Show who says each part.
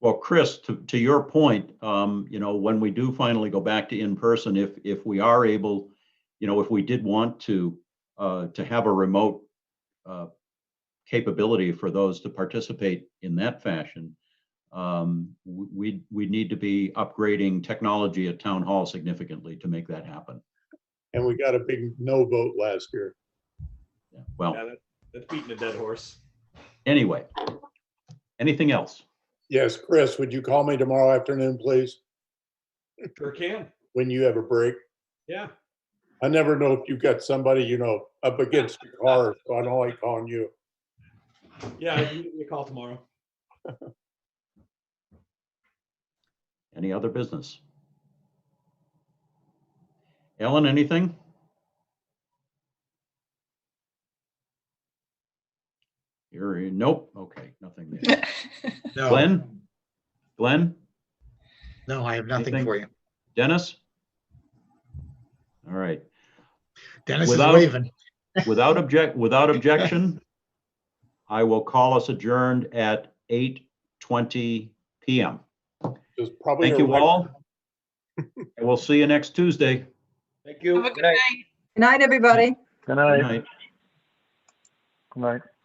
Speaker 1: Well, Chris, to, to your point, um, you know, when we do finally go back to in-person, if, if we are able, you know, if we did want to, uh, to have a remote, uh, capability for those to participate in that fashion, um, w- we, we need to be upgrading technology at town hall significantly to make that happen.
Speaker 2: And we got a big no vote last year.
Speaker 1: Yeah, Well,
Speaker 3: Yeah, that- That's beating a dead horse.
Speaker 1: anyway, anything else?
Speaker 2: Yes, Chris, would you call me tomorrow afternoon, please,
Speaker 3: Sure can.
Speaker 2: when you have a break?
Speaker 3: Yeah.
Speaker 2: I never know if you've got somebody, you know, up against the car, so I don't like calling you.
Speaker 3: Yeah. You give me a call tomorrow.
Speaker 1: Any other business? Ellen, anything? You're, nope, okay, nothing there.
Speaker 4: No,
Speaker 1: Glenn? Glenn?
Speaker 4: no, I have nothing
Speaker 1: Anything?
Speaker 4: for you.
Speaker 1: Dennis? All right,
Speaker 4: Dennis is
Speaker 1: Without-
Speaker 4: waving.
Speaker 1: without object, without objection, I will call us adjourned at 8:20 PM.
Speaker 2: It's probably.
Speaker 1: Thank
Speaker 2: a
Speaker 1: you
Speaker 2: record.
Speaker 1: all. And we'll see you next Tuesday.
Speaker 3: Thank you.
Speaker 5: Have a good night. Good night, everybody.
Speaker 6: Good
Speaker 1: Good
Speaker 6: night.
Speaker 1: night.
Speaker 6: Good night.